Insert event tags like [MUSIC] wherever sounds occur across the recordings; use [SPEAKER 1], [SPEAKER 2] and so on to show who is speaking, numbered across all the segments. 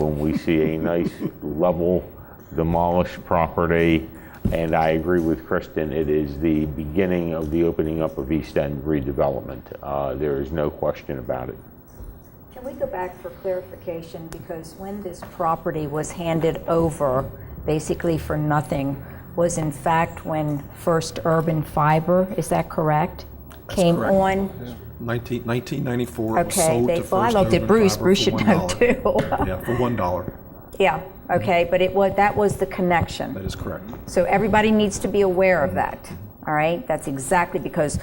[SPEAKER 1] when we see a nice level demolished property. And I agree with Kristen, it is the beginning of the opening up of East End redevelopment. Uh, There is no question about it.
[SPEAKER 2] Can we go back for clarification? Because when this property was handed over, basically for nothing, was in fact when First Urban Fiber, is that correct? Came
[SPEAKER 3] correct.
[SPEAKER 2] on,
[SPEAKER 3] 19 1994, it was
[SPEAKER 2] okay,
[SPEAKER 3] sold
[SPEAKER 2] they,
[SPEAKER 3] to
[SPEAKER 2] well, I
[SPEAKER 3] First
[SPEAKER 2] looked at
[SPEAKER 3] Urban
[SPEAKER 2] Bruce,
[SPEAKER 3] Fiber
[SPEAKER 2] Bruce
[SPEAKER 3] for
[SPEAKER 2] should
[SPEAKER 3] one
[SPEAKER 2] know
[SPEAKER 3] dollar.
[SPEAKER 2] too. [LAUGHS]
[SPEAKER 3] Yeah, for $1.
[SPEAKER 2] Yeah, okay, but it was, that was the connection.
[SPEAKER 3] That is correct.
[SPEAKER 2] So everybody needs to be aware of that, all right? That's exactly because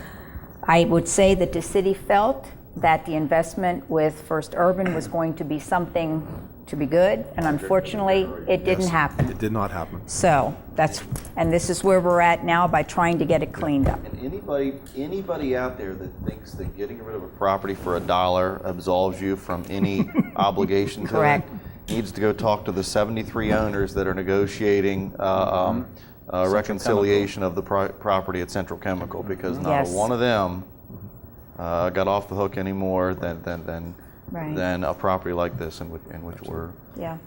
[SPEAKER 2] I would say that the city felt that the investment with First Urban was going to be something to be good, and unfortunately, it didn't happen.
[SPEAKER 3] It did not happen.
[SPEAKER 2] So that's, and this is where we're at now by trying to get it cleaned up.
[SPEAKER 4] And anybody, anybody out there that thinks that getting rid of a property for a dollar absolves you from
[SPEAKER 2] [LAUGHS]
[SPEAKER 4] any obligation to it
[SPEAKER 2] Correct.
[SPEAKER 4] needs to go talk to the 73 owners that are negotiating
[SPEAKER 2] Mm-hmm.
[SPEAKER 4] uh, um, uh, reconciliation of the pro- property at Central Chemical because not
[SPEAKER 2] Mm-hmm. Yes.
[SPEAKER 4] one of them uh, got off the hook any more than, than, than,
[SPEAKER 2] Right.
[SPEAKER 4] than a property like this in which, in which we're
[SPEAKER 2] Yeah,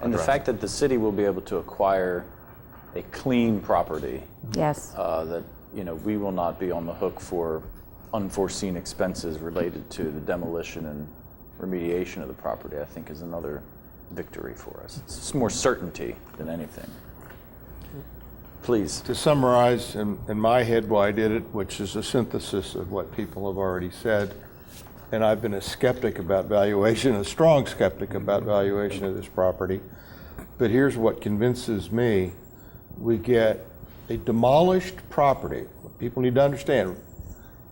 [SPEAKER 5] And the fact that the city will be able to acquire a clean property,
[SPEAKER 2] yes,
[SPEAKER 5] uh, that, you know, we will not be on the hook for unforeseen expenses related to the demolition and remediation of the property, I think is another victory for us. It's just more certainty than anything. Please.
[SPEAKER 6] To summarize in, in my head why I did it, which is a synthesis of what people have already said, and I've been a skeptic about valuation, a strong skeptic about valuation of this property, but here's what convinces me. We get a demolished property. People need to understand,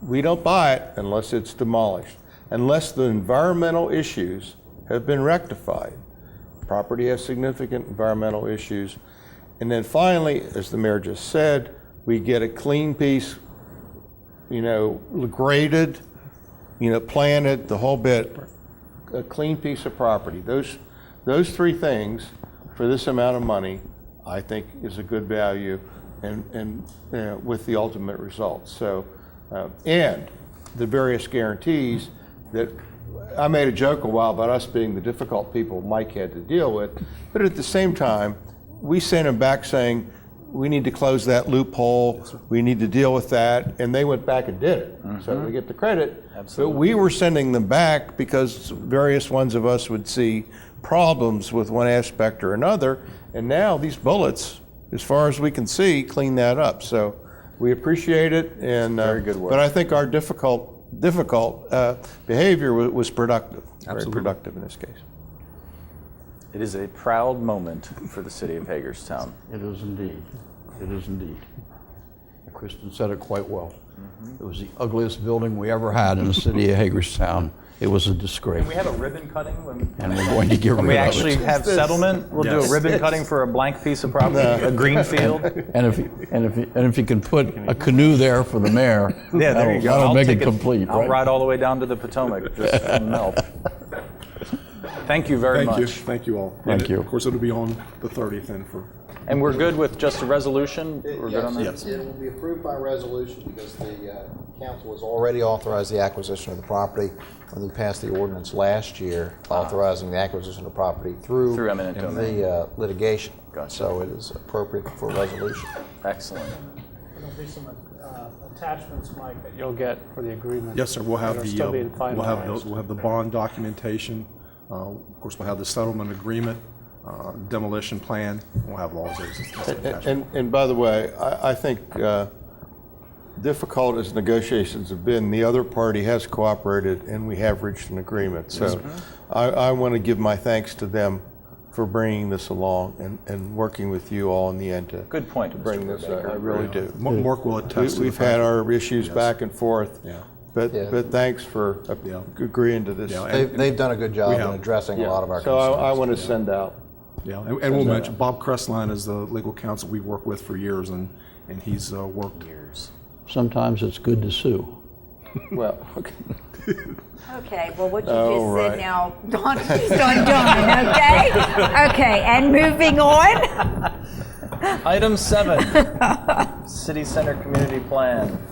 [SPEAKER 6] we don't buy it unless it's demolished, unless the environmental issues have been rectified property has significant environmental issues. And then finally, as the mayor just said, we get a clean piece, you know, graded, you know, planted, the whole bit, a clean piece of property. Those, those three things for this amount of money, I think is a good value and, and you know, with the ultimate result. So, uh, and the various guarantees that I made a joke a while about us being the difficult people Mike had to deal with, but at the same time, we sent him back saying, we need to close that loophole, we need to deal with that, and they went back and did it. So we get the credit. Absolutely. But we were sending them back because various ones of us would see problems with one aspect or another, and now these bullets, as far as we can see, clean that up. So we appreciate it, and. Very
[SPEAKER 5] good work.
[SPEAKER 6] But I think our difficult, difficult uh, behavior wa- was productive, very productive in this case.
[SPEAKER 5] It is a proud moment for the city of Hagerstown.
[SPEAKER 7] It is indeed. It is indeed. Kristen said it quite well.
[SPEAKER 8] Mm-hmm.
[SPEAKER 7] It was the ugliest building we ever had in the city of Hagerstown. It was a disgrace.
[SPEAKER 8] We have a ribbon cutting when,
[SPEAKER 7] And we're going to get
[SPEAKER 8] when we
[SPEAKER 7] rid of
[SPEAKER 8] actually
[SPEAKER 7] it.
[SPEAKER 8] have settlement. We'll do a ribbon cutting for a blank piece of property, a green field.
[SPEAKER 7] And if, and if, and if you can put a canoe there for the mayor,
[SPEAKER 8] Yeah, there you go.
[SPEAKER 7] that'll that'll
[SPEAKER 8] I'll
[SPEAKER 7] make it
[SPEAKER 8] take
[SPEAKER 7] complete,
[SPEAKER 5] I'll
[SPEAKER 7] right?
[SPEAKER 5] ride all the way down to the Potomac just
[SPEAKER 7] [LAUGHS]
[SPEAKER 5] to melt. Thank you very
[SPEAKER 3] Thank
[SPEAKER 5] much.
[SPEAKER 3] you, thank you all. And
[SPEAKER 7] Thank
[SPEAKER 3] it-
[SPEAKER 7] you.
[SPEAKER 3] Of course, it'll be on the 30th then for,
[SPEAKER 5] And we're good with just a resolution? We're good on that?
[SPEAKER 9] Yes, it will be approved by resolution because the uh, council has already authorized the acquisition of the property when they passed the ordinance last year authorizing the acquisition of property through
[SPEAKER 5] Ah. Through eminent domain.
[SPEAKER 9] the uh, litigation.
[SPEAKER 5] Gotcha.
[SPEAKER 9] So it is appropriate for resolution.
[SPEAKER 5] Excellent.
[SPEAKER 10] There'll be some uh, attachments, Mike, that you'll get for the agreement.
[SPEAKER 3] yes, sir, we'll have
[SPEAKER 10] That'll
[SPEAKER 3] the,
[SPEAKER 10] still
[SPEAKER 3] uh,
[SPEAKER 10] being
[SPEAKER 3] we'll have
[SPEAKER 10] finalized.
[SPEAKER 3] the, we'll have the bond documentation. Uh, Of course, we'll have the settlement agreement, uh, demolition plan, we'll have all of those.
[SPEAKER 6] And, and- and by the way, I, I think uh, difficult as negotiations have been, the other party has cooperated and we have reached an agreement. So I, I want to give my thanks to them for bringing this along and, and working with you all in the end to
[SPEAKER 5] Good point, Mr.
[SPEAKER 6] bring this up. I really do.
[SPEAKER 3] Ma- Mark will attest to
[SPEAKER 6] We-
[SPEAKER 3] the
[SPEAKER 6] We've
[SPEAKER 3] fact
[SPEAKER 6] had
[SPEAKER 3] that-
[SPEAKER 6] our issues back and forth.
[SPEAKER 3] Yeah.
[SPEAKER 6] But,
[SPEAKER 9] Yeah.
[SPEAKER 6] but thanks for
[SPEAKER 3] Yeah.
[SPEAKER 6] agreeing to this.
[SPEAKER 3] Yeah, and-
[SPEAKER 9] They've they've done a good job in
[SPEAKER 3] have.
[SPEAKER 9] addressing a lot of our
[SPEAKER 6] So
[SPEAKER 9] concerns.
[SPEAKER 6] I, I want to send out
[SPEAKER 3] Yeah, and, and we'll mention Bob Crestline is the legal counsel we work with for years, and and he's uh, worked.
[SPEAKER 7] Sometimes it's good to sue.
[SPEAKER 6] Well, okay.
[SPEAKER 2] okay, well, what you
[SPEAKER 6] All
[SPEAKER 2] just said
[SPEAKER 6] right.
[SPEAKER 2] now, Don, [LAUGHS] she's on Don, okay? Okay, and moving on, [LAUGHS]
[SPEAKER 8] Item
[SPEAKER 7] [LAUGHS]
[SPEAKER 8] seven, city center community plan.